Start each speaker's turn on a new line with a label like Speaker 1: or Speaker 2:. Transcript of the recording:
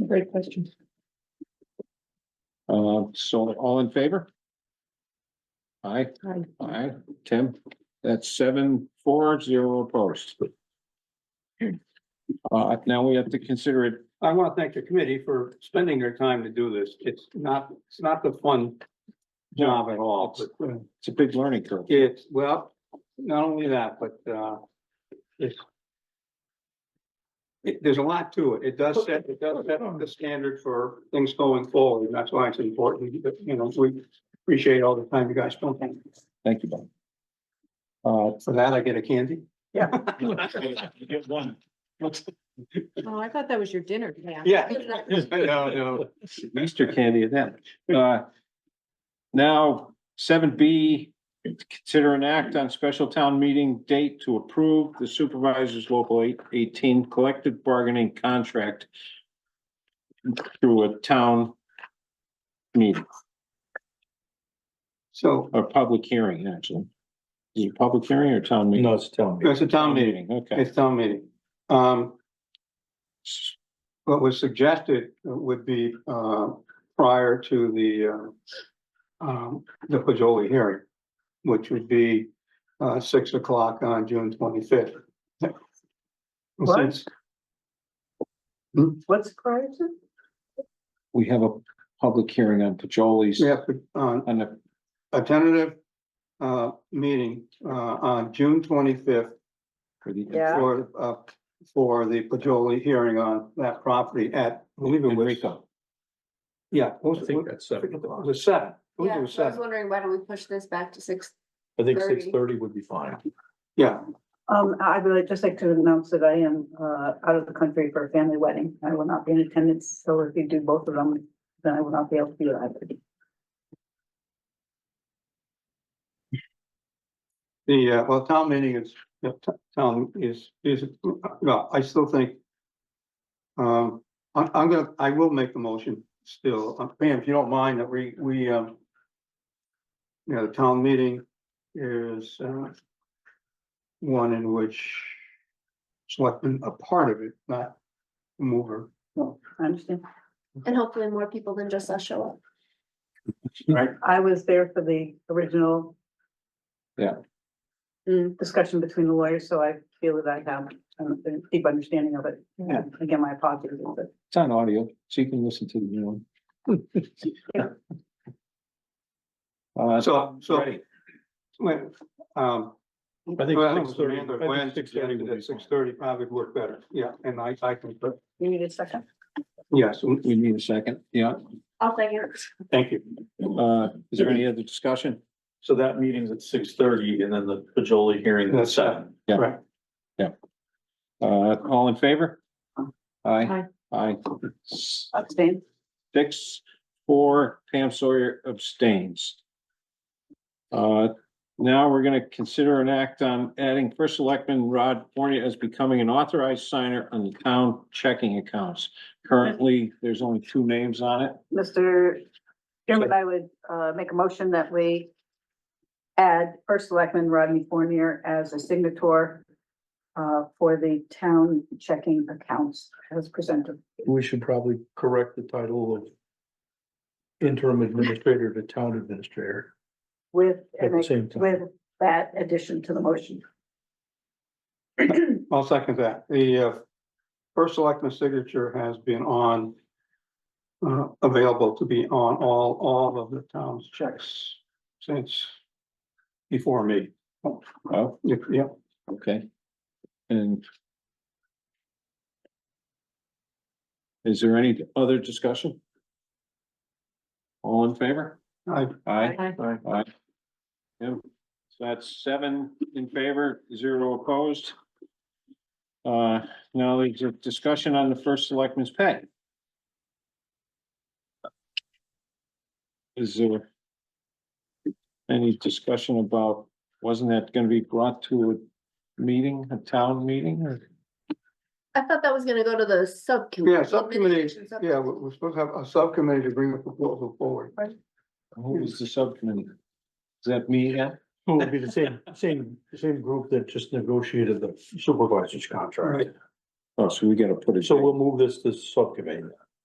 Speaker 1: Great question.
Speaker 2: Uh, so all in favor? Aye,
Speaker 1: Hi.
Speaker 2: aye, Tim, that's seven, four, zero opposed. Uh, now we have to consider it,
Speaker 3: I want to thank the committee for spending their time to do this. It's not, it's not the fun job at all, but uh,
Speaker 2: it's a big learning curve.
Speaker 3: it's, well, not only that, but uh, it's it, there's a lot to it. It does set, it does set the standard for things going forward. and That's why it's important, that, you know, we appreciate all the time you guys spend.
Speaker 2: Thank you, Bob. Uh,
Speaker 3: For that, I get a candy.
Speaker 2: get one.
Speaker 1: Oh, I thought that was your dinner. Yeah.
Speaker 3: Yeah. No, no.
Speaker 2: Easter candy at that. Uh, Now, seven B, consider an act on special town meeting date to approve the supervisor's local eight eighteen collective bargaining contract through a town meeting,
Speaker 3: So
Speaker 2: or public hearing, actually. Is it a public hearing or town meeting?
Speaker 4: it's telling
Speaker 3: it's a town meeting.
Speaker 2: Okay.
Speaker 3: It's town meeting. Um, what was suggested would be, uh, prior to the, uh, um, the Pajoli hearing, which would be, uh, six o'clock on June twenty-fifth. Since
Speaker 1: What's prior to?
Speaker 2: We have a public hearing on Pajoli's,
Speaker 3: we have, uh,
Speaker 2: on the,
Speaker 3: a tentative, uh, meeting, uh, on June twenty-fifth
Speaker 2: for the
Speaker 1: Yeah.
Speaker 3: for, uh, for the Pajoli hearing on that property at, I believe it was,
Speaker 2: Enrico.
Speaker 3: yeah, it
Speaker 4: I
Speaker 3: was,
Speaker 4: think
Speaker 3: it
Speaker 4: that's seven o'clock.
Speaker 3: was seven. I believe
Speaker 5: Yeah,
Speaker 3: it
Speaker 5: so I was
Speaker 3: seven.
Speaker 5: wondering, why don't we push this back to six?
Speaker 4: I think
Speaker 5: Thirty.
Speaker 4: six thirty would be fine.
Speaker 3: Yeah,
Speaker 6: Um, I would like- just like to announce that I am, uh, out of the country for a family wedding. I will not be in attendance, so if you do both of them, then I will not be able to do that.
Speaker 3: the, uh, well, town meeting is, yeah, t- town is, is, no, I still think. Um, I'm, I'm gonna, I will make the motion still, Um, Pam, if you don't mind, that we, we, um. You know, the town meeting is, uh. One in which. Selectmen a part of it, not mover.
Speaker 6: No, I understand.
Speaker 5: And hopefully more people than just us show up.
Speaker 6: I was there for the original.
Speaker 2: Yeah.
Speaker 5: Mm.
Speaker 6: Discussion between the lawyers, so I feel that I have um, a deep understanding of it.
Speaker 2: Yeah.
Speaker 6: Again, my apologies, but
Speaker 2: It's on audio, so you can listen to the new one. Uh,
Speaker 3: So, so,
Speaker 2: ready.
Speaker 3: wait, um.
Speaker 4: I think
Speaker 3: Well, I
Speaker 4: six thirty,
Speaker 3: Amanda
Speaker 4: I
Speaker 3: Gwen
Speaker 4: think six thirty
Speaker 3: suggested
Speaker 4: would be
Speaker 3: that six
Speaker 4: fine.
Speaker 3: thirty probably would work better, yeah, and I, I can, but,
Speaker 6: you need a second.
Speaker 3: yes,
Speaker 2: We need a second, yeah.
Speaker 5: I'll thank you.
Speaker 3: thank you.
Speaker 2: Uh, is there any other discussion?
Speaker 4: So that meeting's at six thirty and then the Pajoli hearing at
Speaker 3: That's
Speaker 4: seven.
Speaker 2: Yeah.
Speaker 3: Right.
Speaker 2: Uh, all in favor? Aye.
Speaker 1: Aye.
Speaker 2: Aye.
Speaker 6: Abstain.
Speaker 2: Six, four, Pam Sawyer abstains. Uh, now we're gonna consider an act on adding first selectman Rod Fornia as becoming an authorized signer on the town checking accounts. Currently, there's only two names on it.
Speaker 6: Mr. Chairman, I would uh make a motion that we add first selectman Rodney Fournier as a signator uh for the town checking accounts as presented.
Speaker 4: We should probably correct the title of interim administrator to town administrator
Speaker 6: With,
Speaker 4: at the same time.
Speaker 6: with that addition to the motion.
Speaker 3: I'll second that, the, uh, first selectman signature has been on. Uh, available to be on all, all of the town's checks since before me,
Speaker 2: Oh,
Speaker 3: yeah, yeah.
Speaker 2: okay. And is there any other discussion? All in favor?
Speaker 3: I,
Speaker 2: Aye.
Speaker 1: Hi.
Speaker 2: Aye. Yep, so that's seven in favor, zero opposed. Uh, now there's a discussion on the first selectman's pay. Is there any discussion about, wasn't that gonna be brought to a meeting, a town meeting or?
Speaker 5: I thought that was gonna go to the subcommittee.
Speaker 3: yeah, subcommittee,
Speaker 5: Administration sub-
Speaker 3: yeah, we- we're supposed to have a subcommittee to bring the proposal forward.
Speaker 2: Who was the subcommittee? Is that me again?
Speaker 4: Who would be the same, same, same group that just negotiated the supervisor's contract.
Speaker 3: Right.
Speaker 2: Oh, so we gotta put it.
Speaker 4: So we'll move this to subcommittee.